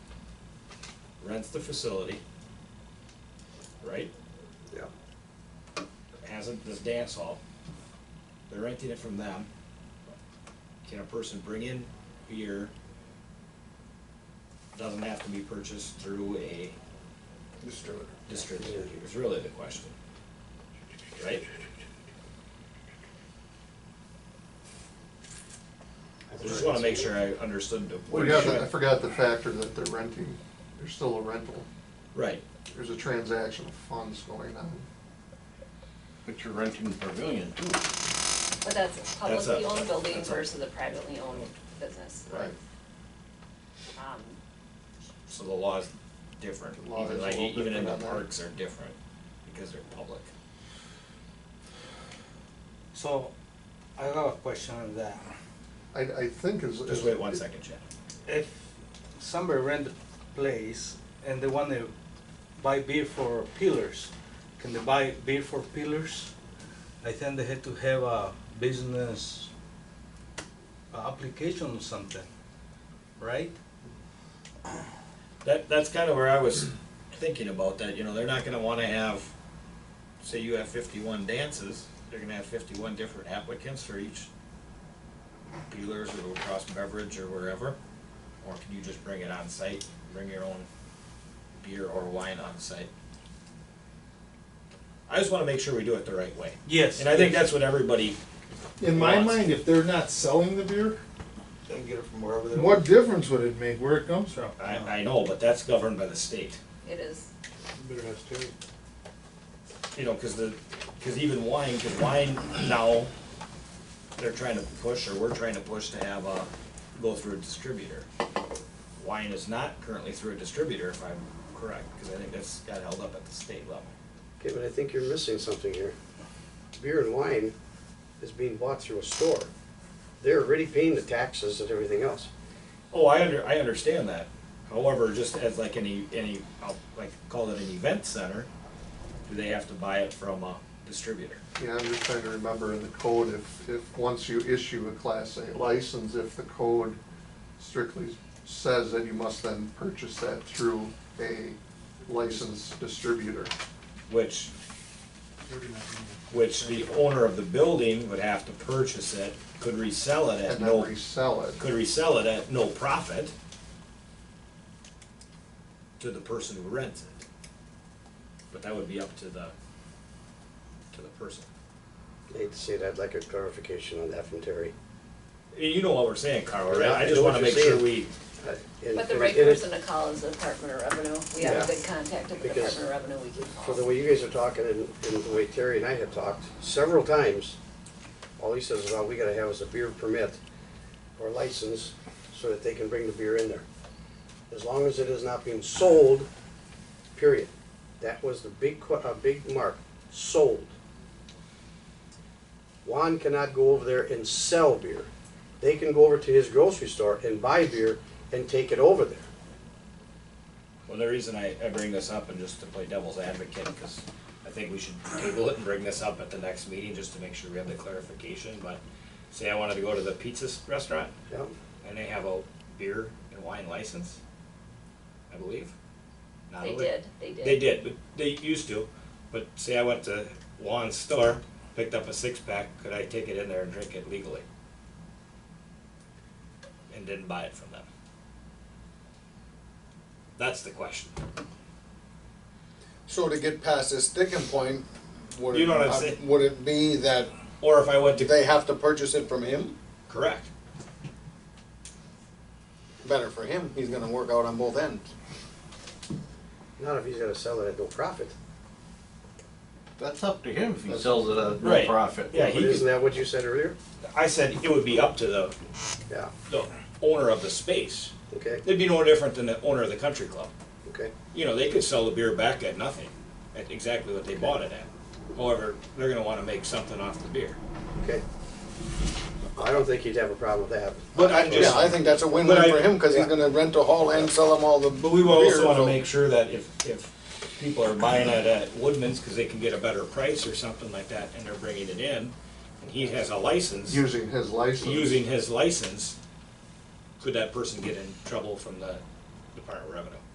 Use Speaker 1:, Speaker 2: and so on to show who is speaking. Speaker 1: rents the facility, right?
Speaker 2: Yeah,
Speaker 1: Has a- this dance hall. They're renting it from them. Can a person bring in beer? Doesn't have to be purchased through a
Speaker 2: distributor.
Speaker 1: distributor, is really the question. Right? I just wanna make sure I understood the.
Speaker 3: We got the- I forgot the factor that they're renting, there's still a rental,
Speaker 1: Right,
Speaker 3: there's a transaction of funds going on.
Speaker 4: But you're renting the pavilion too.
Speaker 5: But that's a publicly
Speaker 1: a-
Speaker 5: owned building
Speaker 1: that's a-
Speaker 5: versus a privately owned business.
Speaker 3: Right.
Speaker 5: Um,
Speaker 1: so the law is different,
Speaker 3: The law is
Speaker 1: even
Speaker 3: a
Speaker 1: like,
Speaker 3: little
Speaker 1: even in the
Speaker 3: different on that.
Speaker 1: parks are different, because they're public.
Speaker 6: So, I have a question on that.
Speaker 3: I, I think is.
Speaker 1: Just wait one second, Chad.
Speaker 6: If somebody rent the place and they want to buy beer for pillars, can they buy beer for pillars? I think they had to have a business application or something, right?
Speaker 1: That, that's kind of where I was thinking about that, you know, they're not gonna wanna have, say you have fifty-one dances, they're gonna have fifty-one different applicants for each peelers or Cross Beverage or wherever, or can you just bring it on site, bring your own beer or wine on site? I just wanna make sure we do it the right way,
Speaker 6: Yes.
Speaker 1: and I think that's what everybody,
Speaker 7: In my
Speaker 1: Lots.
Speaker 7: mind, if they're not selling the beer,
Speaker 6: They can get it from wherever they
Speaker 7: what difference would it make where it comes from?
Speaker 1: I, I know, but that's governed by the state.
Speaker 5: it is,
Speaker 6: Better has to.
Speaker 1: you know, because the, because even wine, because wine now, they're trying to push, or we're trying to push to have a, go through a distributor. Wine is not currently through a distributor, if I'm correct, because I think that's got held up at the state level.
Speaker 2: Okay, but I think you're missing something here. Beer and wine is being bought through a store. They're already paying the taxes and everything else.
Speaker 1: Oh, I under, I understand that. However, just as like any, any, I'll like call it an event center, do they have to buy it from a distributor?
Speaker 3: Yeah, I'm just trying to remember in the code, if, if, once you issue a class A license, if the code strictly says that you must then purchase that through a licensed distributor.
Speaker 1: Which, which the owner of the building would have to purchase it, could resell it at
Speaker 3: And
Speaker 1: no
Speaker 3: then resell it.
Speaker 1: could resell it at no profit to the person who rents it. But that would be up to the, to the person.
Speaker 2: I hate to say that, I'd like a clarification on that from Terry.
Speaker 1: You know what we're saying, Carl, right?
Speaker 2: Yeah, I
Speaker 1: I just
Speaker 2: know what
Speaker 1: wanna
Speaker 2: you're
Speaker 1: make sure
Speaker 2: saying.
Speaker 1: we,
Speaker 2: Uh, and-
Speaker 5: but the right
Speaker 2: and-
Speaker 5: person to call is the Department of Revenue. We have a
Speaker 2: Yeah.
Speaker 5: good contact at the
Speaker 2: Because-
Speaker 5: Department of Revenue we can
Speaker 2: For the
Speaker 5: call.
Speaker 2: way you guys are talking and, and the way Terry and I have talked several times, all he says is all we gotta have is a beer permit or license so that they can bring the beer in there. As long as it is not being sold, period. That was the big, que- uh, big mark, sold. Juan cannot go over there and sell beer. They can go over to his grocery store and buy beer and take it over there.
Speaker 1: well, the reason I, I bring this up and just to play devil's advocate, cause I think we should table it and bring this up at the next meeting, just to make sure we have the clarification, but say I wanted to go to the pizza s- restaurant,
Speaker 2: Yeah,
Speaker 1: and they have a beer and wine license, I believe. Not
Speaker 5: They
Speaker 1: a li-
Speaker 5: did, they did.
Speaker 1: They did, but they used to. But say I went to Juan's store, picked up a six pack, could I take it in there and drink it legally? And didn't buy it from them? That's the question.
Speaker 8: So to get past this sticking point, would
Speaker 1: You know
Speaker 8: it,
Speaker 1: what I'm
Speaker 8: uh,
Speaker 1: saying?
Speaker 8: would it be that
Speaker 1: Or if I went to,
Speaker 8: they have to purchase it from him?
Speaker 1: correct,
Speaker 8: Better for him. He's going to work out on both ends.
Speaker 2: not if he's gonna sell it at no profit.
Speaker 4: That's up to him if he sells it at no
Speaker 1: Right.
Speaker 4: profit.
Speaker 1: Yeah,
Speaker 2: But
Speaker 1: he-
Speaker 2: isn't that what you said earlier?
Speaker 1: I said it would be up to the,
Speaker 2: Yeah,
Speaker 1: the owner of the space.
Speaker 2: okay,
Speaker 1: It'd be no different than the owner of the country club.
Speaker 2: okay.
Speaker 1: you know, they could sell the beer back at nothing, at exactly what they bought it at. However, they're gonna wanna make something off the beer.
Speaker 2: Okay. I don't think he'd have a problem with that.
Speaker 1: But I
Speaker 8: yeah, I think that's a win-win
Speaker 1: But I-
Speaker 8: for him because
Speaker 1: yeah.
Speaker 8: he's going to rent a hall and sell them all the.
Speaker 1: But we will
Speaker 8: beer,
Speaker 1: also wanna
Speaker 8: so-
Speaker 1: make sure that if, if people are buying it at Woodman's, cause they can get a better price or something like that, and they're bringing it in, and he has a license,
Speaker 3: Using his license.
Speaker 1: using his license, could that person get in trouble from the Department of Revenue?